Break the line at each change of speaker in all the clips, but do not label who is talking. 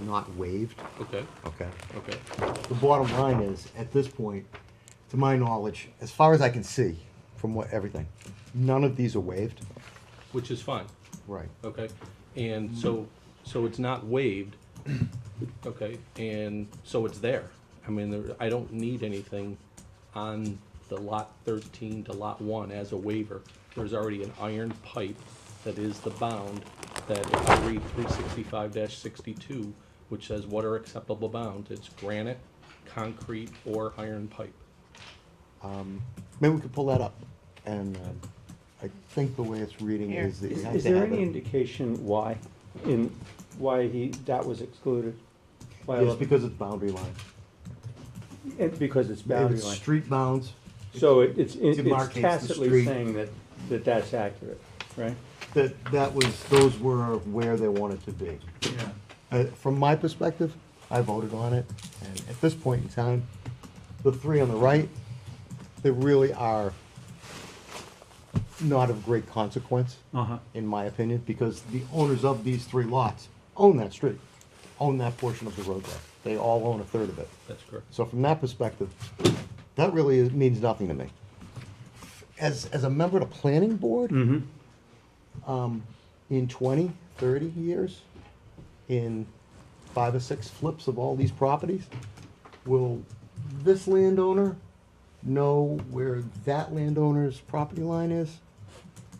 not waived,
Okay,
okay?
okay.
The bottom line is, at this point, to my knowledge, as far as I can see, from what, everything, none of these are waived.
Which is fine,
Right.
okay? And so, so it's not waived, okay? And so it's there. I mean, there, I don't need anything on the lot thirteen to lot one as a waiver. There's already an iron pipe that is the bound that if I read three sixty-five sixty-two, which says what are acceptable bounds, it's granite, concrete, or iron pipe.
Maybe we could pull that up, and, um, I think the way it's reading
Here.
is that you
Is,
have
is
to
there
have
any
it.
indication why, in, why he, that was excluded? Why
It's
it-
because it's boundary line.
it- Because it's
If
boundary
it's
line.
street bounds,
So it- it's, it- it's
demarcates the
tacitly
street.
saying that, that that's accurate, right?
that, that was, those were where they wanted to be.
Yeah,
Uh, from my perspective, I voted on it, and at this point in time, the three on the right, they really are not of great consequence,
Uh-huh.
in my opinion, because the owners of these three lots own that street, own that portion of the roadway. They all own a third of it.
That's correct.
So from that perspective, that really is- means nothing to me. As, as a member of the planning board,
Mm-hmm.
Um, in 20, 30 years, in five or six flips of all these properties, will this landowner know where that landowner's property line is?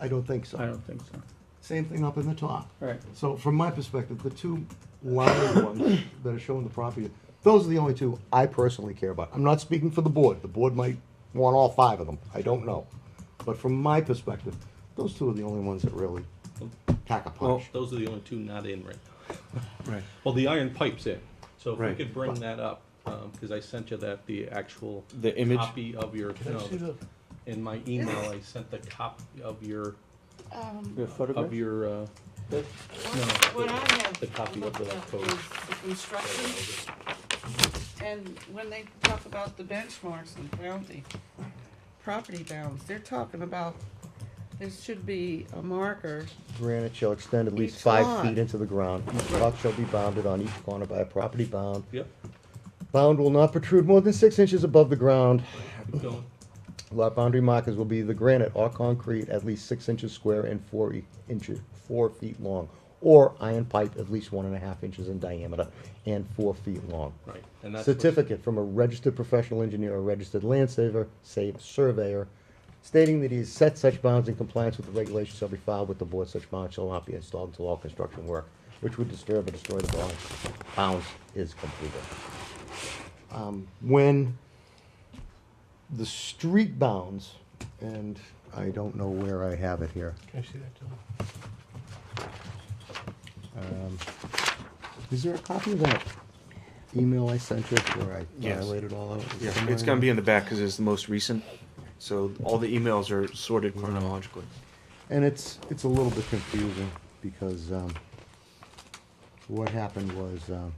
I don't think
I
so.
don't think so.
Same thing up in the top.
Right.
So from my perspective, the two lined ones that are showing the property, those are the only two I personally care about. I'm not speaking for the board. The board might want all five of them. I don't know. But from my perspective, those two are the only ones that really pack a punch.
Those are the only two not in right now.
right.
Well, the iron pipe's in, so if we
Right.
could bring that up, um, cause I sent you that, the actual.
The image?
Copy of your, no, in my email, I sent the copy of your,
Your
of
photograph?
your, uh,
That-
What I have.
The copy of the
looked up
code.
is the Construction, and when they talk about the benchmarks and bounty, property bounds, they're talking about, there should be a marker.
Granite shall extend at least
Each
five
lot.
feet into the ground. Each lot shall be bounded on each corner by a property bound.
yep,
Bound will not protrude more than six inches above the ground.
keep going.
Lot boundary markers will be the granite or concrete at least six inches square and four e- inches, four feet long, or iron pipe at least one and a half inches in diameter and four feet long.
right, and that's. what-
Certificate from a registered professional engineer or registered land saver, save surveyor, stating that he has set such bounds in compliance with the regulations shall be filed with the board, such bounds shall not be installed until all construction work, which would disturb or destroy the bounds, bounds is completed. Um, when the street bounds, and I don't know where I have it here.
Can I see that, Dylan?
Um, Is there a copy of that email I sent you where I
Yes.
laid it all out?
Yeah, it's gonna be in the back because it's the most recent. So all the emails are sorted chronologically.
And it's, it's a little bit confusing because, um, what happened was, um,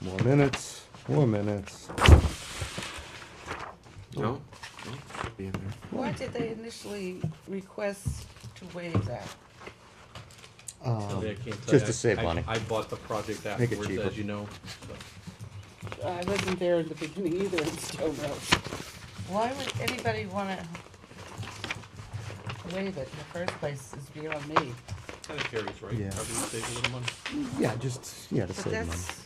more minutes, more minutes.
No? No? Should Be in there.
Why did they initially request to waive that?
So they
Um,
can't tell you,
just
I-
to save
I-
money.
I bought the project
it
afterwards,
cheaper.
as you know, so.
I wasn't there in the beginning either, and still no. Why would anybody wanna waive it in the first place is beyond me.
I think Terry's right,
Yeah.
probably save a little money.
Yeah, just, yeah, to
But
save money.
that's-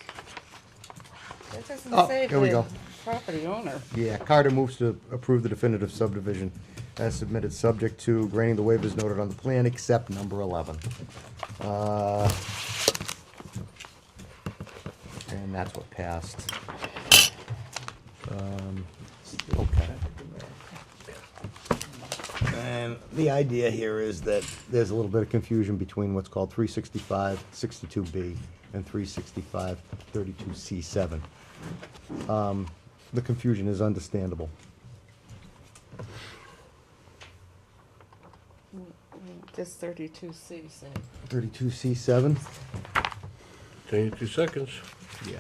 That
Oh,
doesn't say
here we go.
the property owner.
Yeah, Carter moves to approve the definitive subdivision as submitted, subject to granting the waivers noted on the plan, except number eleven. Uh, And that's what passed. Um, Okay. And the idea here is that there's a little bit of confusion between what's called 365 62B and 365 32C7. Um, The confusion is understandable.
Just thirty-two C said.
32C7?
Twenty-two seconds.
Yeah.